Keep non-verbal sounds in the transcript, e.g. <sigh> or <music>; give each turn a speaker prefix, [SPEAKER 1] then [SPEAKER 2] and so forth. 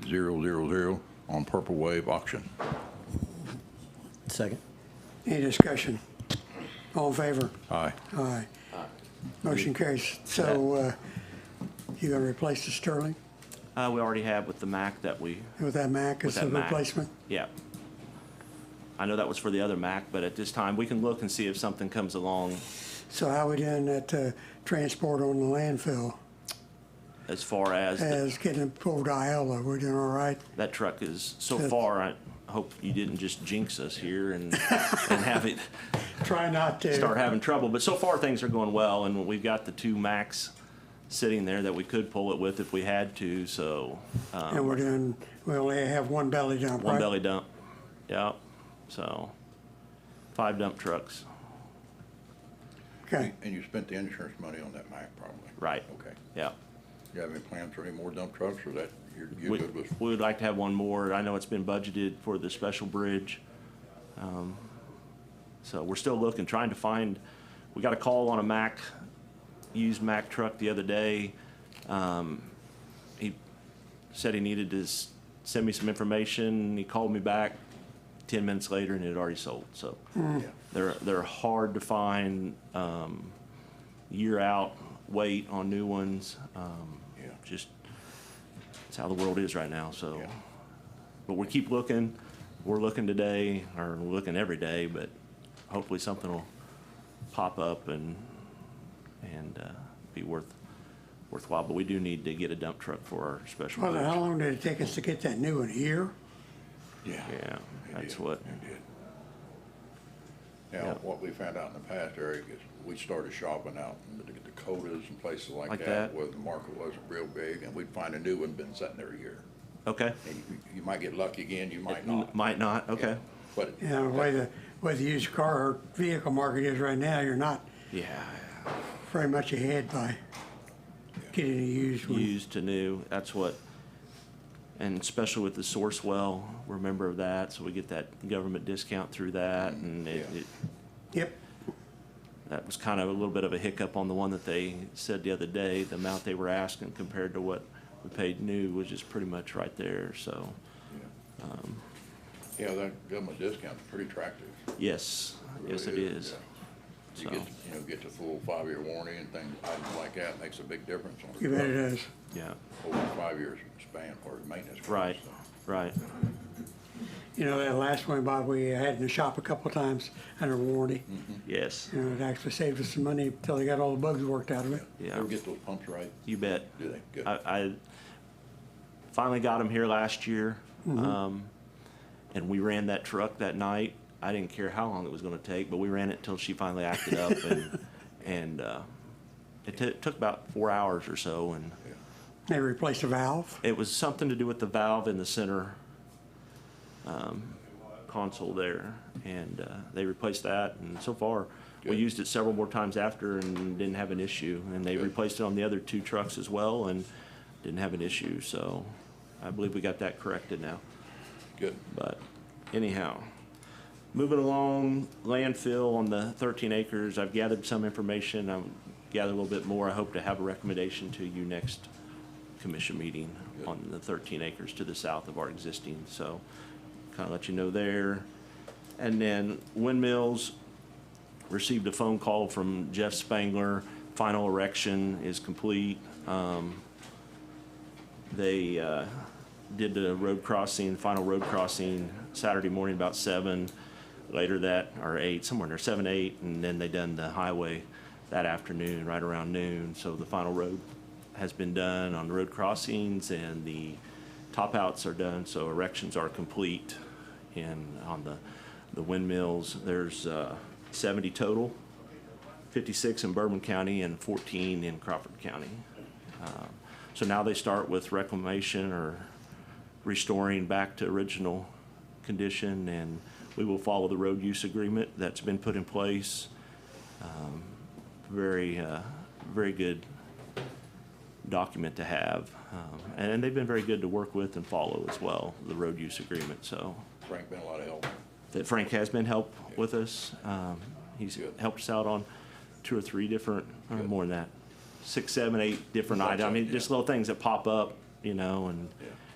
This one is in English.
[SPEAKER 1] F8000 on Purple Wave Auction.
[SPEAKER 2] Second.
[SPEAKER 3] Any discussion? All in favor?
[SPEAKER 1] Aye.
[SPEAKER 3] Aye. Motion carries. So uh, you gonna replace the Sterling
[SPEAKER 4] Uh, we already have with the Mac that we,
[SPEAKER 3] with that Mack
[SPEAKER 4] with
[SPEAKER 3] as a
[SPEAKER 4] that Mac.
[SPEAKER 3] replacement?
[SPEAKER 4] Yeah. I know that was for the other Mac, but at this time, we can look and see if something comes along
[SPEAKER 3] So how we doing that uh, transport on the landfill
[SPEAKER 4] as far as th-
[SPEAKER 3] as getting it pulled to Iola? We're doing all right?
[SPEAKER 4] that truck is so
[SPEAKER 3] Good.
[SPEAKER 4] far. I hope you didn't just jinx us here and, and have it
[SPEAKER 3] Try not to.
[SPEAKER 4] start having trouble. But so far, things are going well, and we've got the two Macs sitting there that we could pull it with if we had to. So um,
[SPEAKER 3] And we're doing, we only have one belly dump,
[SPEAKER 4] one
[SPEAKER 3] right?
[SPEAKER 4] belly dump. Yep. So five dump trucks.
[SPEAKER 3] Okay.
[SPEAKER 1] And you spent the insurance money on that Mack, probably?
[SPEAKER 4] Right.
[SPEAKER 1] Okay.
[SPEAKER 4] Yep.
[SPEAKER 1] You have any plans for any more dump trucks, or that, you're you're
[SPEAKER 4] We
[SPEAKER 1] good with?
[SPEAKER 4] we would like to have one more. I know it's been budgeted for the special bridge. Um, So we're still looking, trying to find, we got a call on a Mack, used Mack truck the other day. Um, He said he needed to s- send me some information. He called me back 10 minutes later and it had already sold, so.
[SPEAKER 1] Mm.
[SPEAKER 4] They're, they're hard to find, um, year out wait on new ones. Um,
[SPEAKER 1] Yeah.
[SPEAKER 4] Just, it's how the world is right now, so.
[SPEAKER 1] Yeah.
[SPEAKER 4] But we keep looking. We're looking today, or we're looking every day, but hopefully something will pop up and, and uh, be worth, worthwhile. But we do need to get a dump truck for our special.
[SPEAKER 3] Well, then how
[SPEAKER 4] bridge.
[SPEAKER 3] long did it take us to get that new one? A year?
[SPEAKER 1] Yeah.
[SPEAKER 4] Yeah,
[SPEAKER 1] It
[SPEAKER 4] that's
[SPEAKER 1] did.
[SPEAKER 4] what,
[SPEAKER 1] It did.
[SPEAKER 4] Yeah.
[SPEAKER 1] Now, what we found out in the past, Eric, is we started shopping out in the Dakotas and places like
[SPEAKER 4] Like
[SPEAKER 1] that
[SPEAKER 4] that.
[SPEAKER 1] where the market wasn't real big, and we'd find a new one, been sitting there a year.
[SPEAKER 4] okay.
[SPEAKER 1] And you, you might get lucky again, you might not.
[SPEAKER 4] Might not, okay.
[SPEAKER 1] But
[SPEAKER 3] You know, the way the, way the used car or vehicle market is right now, you're not
[SPEAKER 4] Yeah,
[SPEAKER 3] very much ahead by getting a used one.
[SPEAKER 4] used to new, that's what, and especially with the source well, we're a member of that, so we get that government discount through that, and it,
[SPEAKER 1] Yeah.
[SPEAKER 4] it-
[SPEAKER 3] Yep.
[SPEAKER 4] that was kind of a little bit of a hiccup on the one that they said the other day, the amount they were asking compared to what we paid new was just pretty much right there, so,
[SPEAKER 1] Yeah. Yeah, that government discount's pretty attractive.
[SPEAKER 4] yes, yes it
[SPEAKER 1] Really
[SPEAKER 4] is.
[SPEAKER 1] yeah. You
[SPEAKER 4] So,
[SPEAKER 1] get, you know, get the full five-year warranty and things, items like that, makes a big difference on.
[SPEAKER 3] You bet it is.
[SPEAKER 4] yeah,
[SPEAKER 1] Over a five years span for maintenance. costs,
[SPEAKER 4] right,
[SPEAKER 1] so.
[SPEAKER 4] right,
[SPEAKER 3] You know, that last one, Bob, we had in the shop a couple of times under warranty.
[SPEAKER 4] yes,
[SPEAKER 3] You know, it actually saved us some money until they got all the bugs worked out of it.
[SPEAKER 4] yeah.
[SPEAKER 1] Ever get those pumps right?
[SPEAKER 4] You bet.
[SPEAKER 1] Do they? Good.
[SPEAKER 4] I, I finally got him here last year, um, and we ran that truck that night. I didn't care how long it was going to take, but we ran it till she finally acted up, and <laughs> and uh, it t- took about four hours or so, and
[SPEAKER 1] Yeah.
[SPEAKER 3] They replaced the valve.
[SPEAKER 4] it was something to do with the valve in the center um, console there, and uh, they replaced that. And so far, we
[SPEAKER 1] Good.
[SPEAKER 4] used it several more times after and didn't have an issue. And they
[SPEAKER 1] Good.
[SPEAKER 4] replaced it on the other two trucks as well and didn't have an issue. So I believe we got that corrected now.
[SPEAKER 1] Good.
[SPEAKER 4] But anyhow, moving along, landfill on the 13 acres, I've gathered some information. I've gathered a little bit more. I hope to have a recommendation to you next commission meeting
[SPEAKER 1] Good.
[SPEAKER 4] on the 13 acres to the south of our existing, so kind of let you know there. And then windmills, received a phone call from Jeff Spangler. Final erection is complete. Um, They uh, did the road crossing, final road crossing Saturday morning about seven. Later that, or eight, somewhere near seven, eight, and then they done the highway that afternoon, right around noon. So the final road has been done on the road crossings and the top outs are done, so erections are complete. And on the, the windmills, there's uh, 70 total, 56 in Bourbon County and 14 in Crawford County. Um, So now they start with reclamation or restoring back to original condition, and we will follow the road use agreement that's been put in place. Um, Very, uh, very good document to have. Um, And they've been very good to work with and follow as well, the road use agreement, so
[SPEAKER 1] Frank been a lot of help.
[SPEAKER 4] that Frank has been help with us. Um, He's
[SPEAKER 1] Good.
[SPEAKER 4] helped us out on two or three different, uh, or
[SPEAKER 1] Good.
[SPEAKER 4] more than that, six, seven, eight different
[SPEAKER 1] Lots
[SPEAKER 4] items. I
[SPEAKER 1] of-
[SPEAKER 4] mean, just
[SPEAKER 1] yeah.
[SPEAKER 4] little things that pop up, you know, and
[SPEAKER 1] Yeah.